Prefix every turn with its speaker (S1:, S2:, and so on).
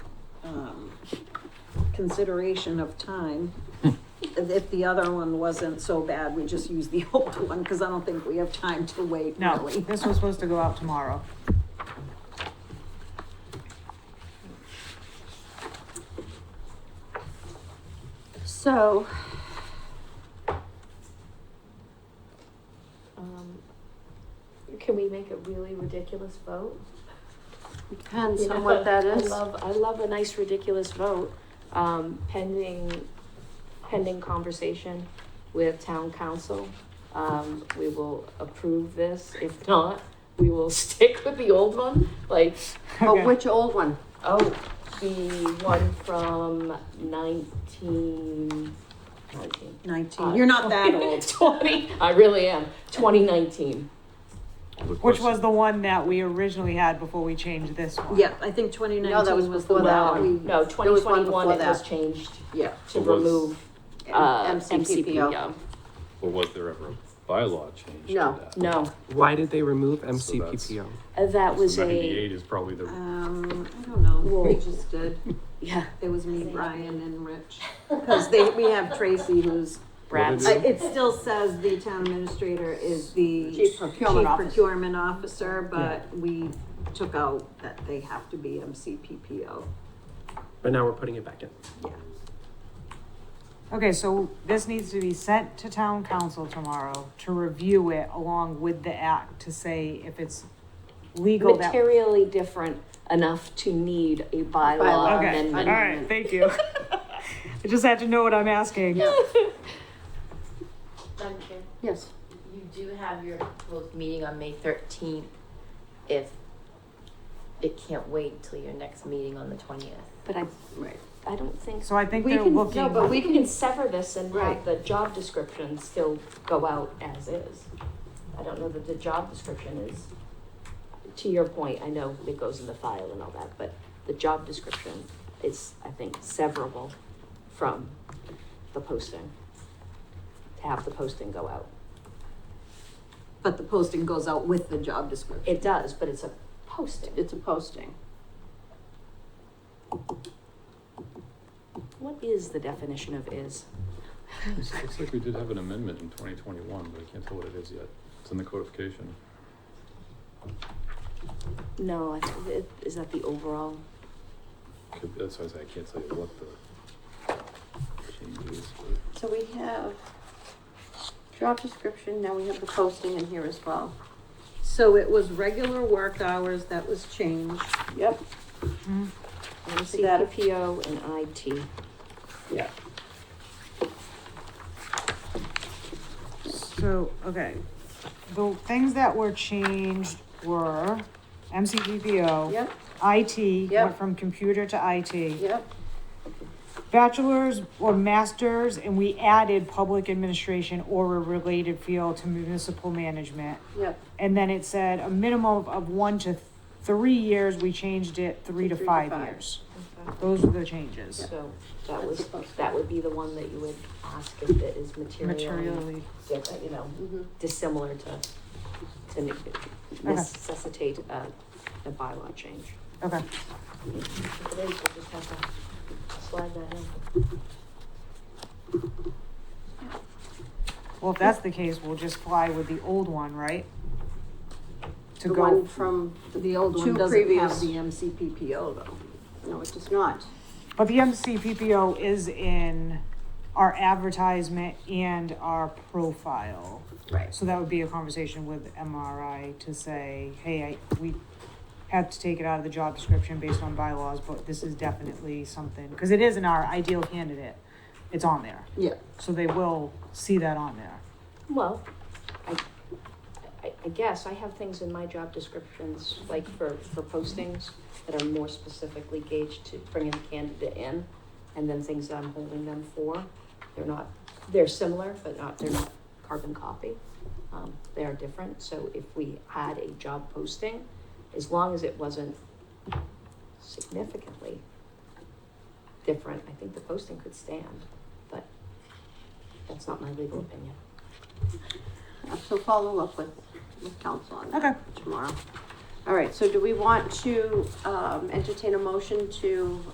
S1: um, consideration of time. If the other one wasn't so bad, we just use the old one, because I don't think we have time to wait,
S2: No,
S1: really.
S2: this was supposed to go out tomorrow.
S3: So. Um, can we make a really ridiculous vote?
S4: Depends
S3: You
S4: on
S3: know,
S4: what that
S3: I
S4: is.
S3: love, I love a nice ridiculous vote, um, pending, pending conversation with town council. Um, we will approve this, if not, we will stick with the old one, like,
S4: Oh,
S2: Okay.
S4: which old one?
S3: oh, the one from nineteen, nineteen. uh,
S1: Nineteen, you're not that old.
S3: Twenty, I really am, twenty nineteen.
S2: Which was the one that we originally had before we changed this one.
S1: Yeah, I think twenty
S4: No, that was
S1: nineteen was the
S4: before
S1: one
S4: that
S1: that we,
S4: one.
S3: No,
S4: There
S3: twenty
S4: was one
S3: twenty-one,
S4: before
S3: it was
S4: that.
S3: changed
S1: yeah,
S3: to
S5: It was-
S3: remove,
S4: M-
S3: uh,
S4: MCPPO.
S3: MCPPO.
S5: Or was there ever a bylaw change to
S4: No.
S5: that?
S3: No,
S6: Why did they remove
S5: that's-
S6: MCPPO?
S3: uh, that was
S5: So
S3: a,
S5: Ninety-eight is probably the,
S1: um, I don't know, we just did.
S3: yeah,
S1: It was me, Brian, and Rich, because they, we have Tracy who's
S3: rats.
S1: I- It still says the town administrator is the.
S4: Chief procurement
S1: chief
S4: officer.
S1: procurement officer, but we took out that they have to be MCPPO.
S6: But now we're putting it back in.
S2: Okay, so this needs to be sent to town council tomorrow to review it along with the act to say if it's legal that.
S3: Materially different enough to need a bylaw
S4: Bylaw.
S2: Okay, all
S3: amendment.
S2: right, thank you. I just had to know what I'm asking.
S7: Madam Chair,
S4: Yes.
S7: you do have your proposed meeting on May thirteenth. If it can't wait till your next meeting on the twentieth.
S3: But I,
S1: Right.
S3: I don't think,
S2: So I think
S3: we
S2: they're
S3: can,
S2: looking.
S3: no, but we can sever this and
S1: Right.
S3: have the job description still go out as is. I don't know that the job description is, to your point, I know it goes in the file and all that, but the job description is, I think, severable from the posting. To have the posting go out.
S1: But the posting goes out with the job description.
S3: It does, but it's a posting.
S4: It's a posting.
S3: What is the definition of is?
S5: it looks like we did have an amendment in twenty twenty-one, but I can't tell what it is yet. It's in the codification.
S3: No, I think it- is that the overall?
S5: Could- That's why I say I can't tell you what the change is, but
S4: So we have job description, now we have the posting in here as well.
S1: So it was regular work hours that was changed.
S4: Yep. that-
S3: CPPO and IT.
S4: Yeah.
S2: So, okay, the things that were changed were MCGPO.
S4: Yep,
S2: IT, went
S4: Yep.
S2: from computer to IT.
S4: yep,
S2: Bachelor's or masters, and we added public administration or a related field to municipal management.
S4: yep.
S2: And then it said a minimum of one to three years, we changed it three to
S4: Three to
S2: five
S4: five.
S2: years. Those are the changes.
S3: So that
S4: That's
S3: was,
S4: supposed to-
S3: that would be the one that you would ask if it is material,
S2: Materially,
S3: different, you know,
S4: Mhm.
S3: dissimilar to, to ne- necessitate a, a bylaw change.
S2: okay,
S3: If it is, we'll just have to slide that in.
S2: well, if that's the case, we'll just fly with the old one, right? To
S4: The
S2: go,
S4: one from,
S1: The old one
S4: Two
S1: doesn't have
S4: previous.
S1: the MCPPO though.
S4: no, it does not.
S2: but the MCPPO is in our advertisement and our profile.
S4: Right.
S2: So that would be a conversation with MRI to say, hey, I, we had to take it out of the job description based on bylaws, but this is definitely something, because it is in our ideal candidate. It's on there,
S1: Yeah.
S2: so they will see that on there.
S3: Well, I, I, I guess I have things in my job descriptions, like for, for postings that are more specifically gauged to bringing the candidate in, and then things that I'm holding them for. They're not, they're similar, but not, they're not carbon copy. Um, they are different, so if we had a job posting, as long as it wasn't significantly different, I think the posting could stand, but that's not my legal opinion.
S4: Uh, So follow up with, with council on that
S2: Okay.
S4: tomorrow. All right, so do we want to, um, entertain a motion to,